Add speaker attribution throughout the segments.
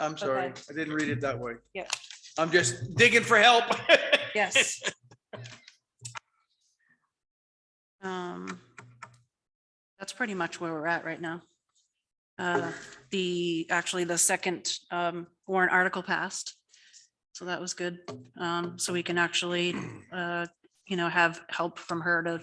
Speaker 1: I'm sorry.
Speaker 2: Okay.
Speaker 1: I didn't read it that way.
Speaker 2: Yep.
Speaker 1: I'm just digging for help.
Speaker 2: Yes. Um, That's pretty much where we're at right now. Uh, The, actually, the second um, warrant article passed. So that was good. Um, So we can actually, uh, you know, have help from her to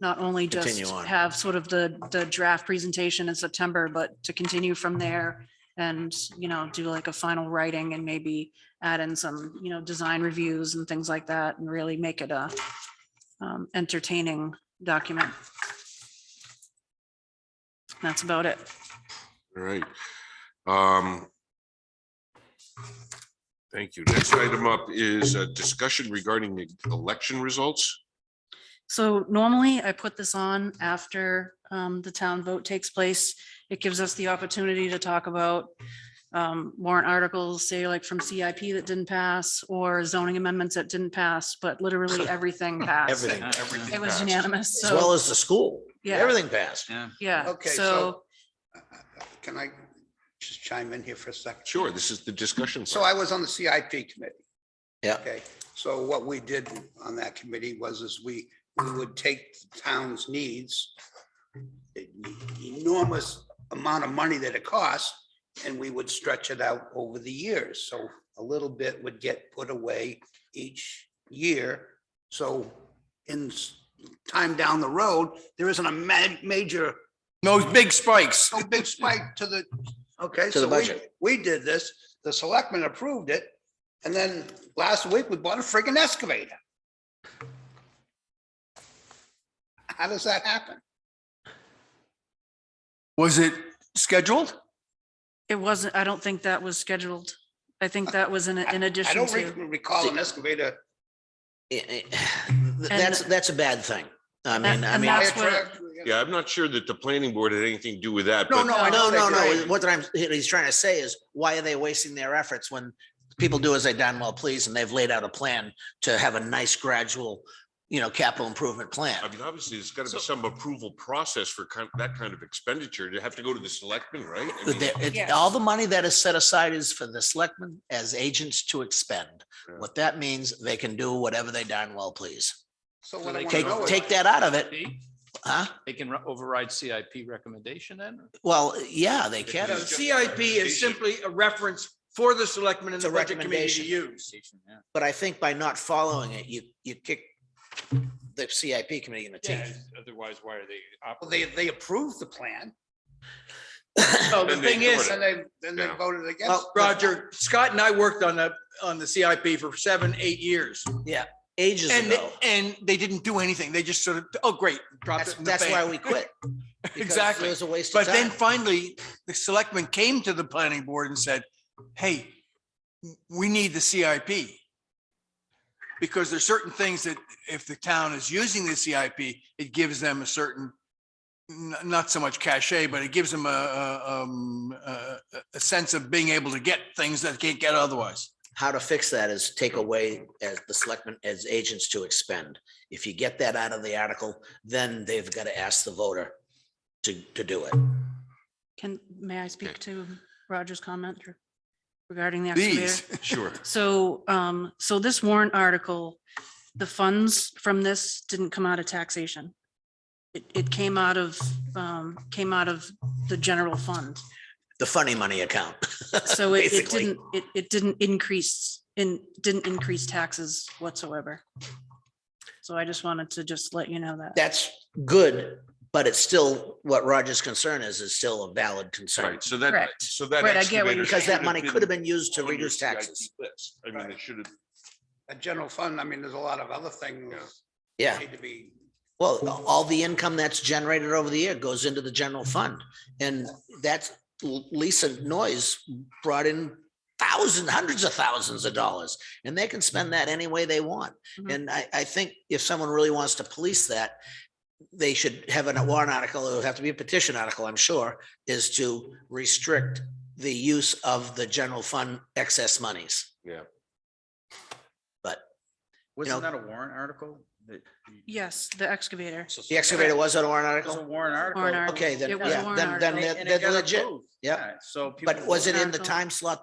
Speaker 2: not only just
Speaker 3: Continue on.
Speaker 2: have sort of the, the draft presentation in September, but to continue from there and, you know, do like a final writing and maybe add in some, you know, design reviews and things like that and really make it a um, entertaining document. That's about it.
Speaker 4: All right. Um, Thank you. Next item up is a discussion regarding the election results.
Speaker 2: So normally I put this on after um, the town vote takes place. It gives us the opportunity to talk about um, warrant articles, say like from CIP that didn't pass or zoning amendments that didn't pass, but literally everything passed.
Speaker 3: Everything,
Speaker 2: It was unanimous.
Speaker 3: as well
Speaker 2: So,
Speaker 3: as the school.
Speaker 2: Yeah.
Speaker 3: Everything passed.
Speaker 2: yeah,
Speaker 5: Okay,
Speaker 2: so,
Speaker 5: so- Can I just chime in here for a second?
Speaker 4: Sure, this is the discussion.
Speaker 5: So I was on the CIP committee.
Speaker 3: Yeah.
Speaker 5: Okay, so what we did on that committee was is we, we would take the town's needs, the enormous amount of money that it costs, and we would stretch it out over the years. So a little bit would get put away each year. So in s- time down the road, there isn't a ma- major
Speaker 1: Those big spikes.
Speaker 5: no big spike to the, okay,
Speaker 3: To the
Speaker 5: so we,
Speaker 3: budget.
Speaker 5: we did this, the selectmen approved it. And then last week, we bought a friggin' excavator. How does that happen?
Speaker 1: Was it scheduled?
Speaker 2: it wasn't, I don't think that was scheduled. I think that was in, in
Speaker 5: I
Speaker 2: addition
Speaker 5: don't
Speaker 2: to.
Speaker 5: re- recall an excavator.
Speaker 3: Eh, eh, That's, that's a bad thing. I mean, I
Speaker 2: and
Speaker 3: mean,
Speaker 2: that's what-
Speaker 4: Yeah, I'm not sure that the planning board had anything to do with that,
Speaker 5: No,
Speaker 4: but
Speaker 5: no, I
Speaker 3: no,
Speaker 5: don't
Speaker 3: no,
Speaker 5: think
Speaker 3: no.
Speaker 5: they-
Speaker 3: What I'm, he's trying to say is, why are they wasting their efforts when people do as they darn well please and they've laid out a plan to have a nice gradual, you know, capital improvement plan?
Speaker 4: I mean, obviously, there's got to be some approval process for kind, that kind of expenditure. You have to go to the selectmen, right? I
Speaker 3: But
Speaker 4: mean,
Speaker 3: there- it-
Speaker 2: Yes.
Speaker 3: All the money that is set aside is for the selectmen as agents to expend.
Speaker 4: Yeah.
Speaker 3: What that means, they can do whatever they darn well please.
Speaker 5: So what
Speaker 6: They
Speaker 5: I want to
Speaker 3: Take,
Speaker 5: know is.
Speaker 3: take that out of it,
Speaker 6: CIP?
Speaker 3: huh?
Speaker 6: They can ru- override CIP recommendation then?
Speaker 3: Well, yeah, they can.
Speaker 1: The CIP is simply a reference for the selectmen and
Speaker 3: It's a
Speaker 1: the budget committee to
Speaker 3: recommendation.
Speaker 1: use.
Speaker 3: But I think by not following
Speaker 1: Mm-hmm.
Speaker 3: it, you, you kick the CIP committee in the teeth.
Speaker 6: Otherwise, why are they?
Speaker 5: Well, They, they approved the plan.
Speaker 1: So the
Speaker 4: Then they
Speaker 1: thing
Speaker 4: ignored
Speaker 1: is, uh,
Speaker 5: And they, then they
Speaker 4: Yeah.
Speaker 5: voted against.
Speaker 3: Well,
Speaker 1: Roger, Scott and I worked on the, on the CIP for seven, eight years.
Speaker 3: Ages
Speaker 1: And,
Speaker 3: ago.
Speaker 1: and they didn't do anything. They just sort of, oh, great, dropped
Speaker 3: That's,
Speaker 1: it in the
Speaker 3: that's why
Speaker 1: bank.
Speaker 3: we quit. because
Speaker 1: Exactly.
Speaker 3: It was a waste of
Speaker 1: But then
Speaker 3: time.
Speaker 1: finally, the selectmen came to the planning board and said, hey, we need the CIP. Because there's certain things that if the town is using the CIP, it gives them a certain, n- not so much cachet, but it gives them a, a, um, a, a sense of being able to get things that they can't get otherwise.
Speaker 3: How to fix that is take away as the selectmen, as agents to expend. If you get that out of the article, then they've got to ask the voter to, to do it.
Speaker 2: Can, may I speak to Roger's comment re- regarding the excavator?
Speaker 1: These,
Speaker 4: Sure.
Speaker 2: So, um, so this warrant article, the funds from this didn't come out of taxation. It, it came out of, um, came out of the general fund.
Speaker 3: The funny money account.
Speaker 2: So it, it
Speaker 3: Basically.
Speaker 2: didn't, it, it didn't increase in, didn't increase taxes whatsoever. So I just wanted to just let you know that.
Speaker 3: That's good, but it's still, what Roger's concern is, is still a valid concern.
Speaker 4: Right, so that,
Speaker 2: Correct.
Speaker 4: so that.
Speaker 2: Right, I get what
Speaker 4: excavator
Speaker 2: you're
Speaker 3: Because
Speaker 4: should
Speaker 3: that money could have been used to
Speaker 4: on your
Speaker 3: reduce
Speaker 4: CIP
Speaker 3: taxes.
Speaker 4: list. I mean, it should have.
Speaker 5: A general fund, I mean, there's a lot of other things
Speaker 3: Yeah.
Speaker 5: need to be,
Speaker 3: Well, all the income that's generated over the year goes into the general fund. And that's Lisa Noyes brought in thousands, hundreds of thousands of dollars. And they can spend that any way they want.
Speaker 2: Mhm.
Speaker 3: And I, I think if someone really wants to police that, they should have a warrant article, it would have to be a petition article, I'm sure, is to restrict the use of the general fund excess monies.
Speaker 4: Yeah.
Speaker 3: But
Speaker 7: Wasn't
Speaker 3: know-
Speaker 7: that a warrant article?
Speaker 2: Yes, the excavator.
Speaker 3: The excavator was on a warrant
Speaker 7: It was a
Speaker 3: article?
Speaker 7: warrant
Speaker 2: Warrant
Speaker 7: article.
Speaker 2: article.
Speaker 3: Okay, then,
Speaker 2: It was a
Speaker 3: yeah,
Speaker 2: warrant
Speaker 3: then, then
Speaker 7: and it-
Speaker 3: they're
Speaker 7: and it
Speaker 3: they're
Speaker 7: got
Speaker 3: legit.
Speaker 7: approved.
Speaker 3: Yep.
Speaker 7: Yeah, So. people
Speaker 3: But was it in the
Speaker 2: Article.
Speaker 3: time slot that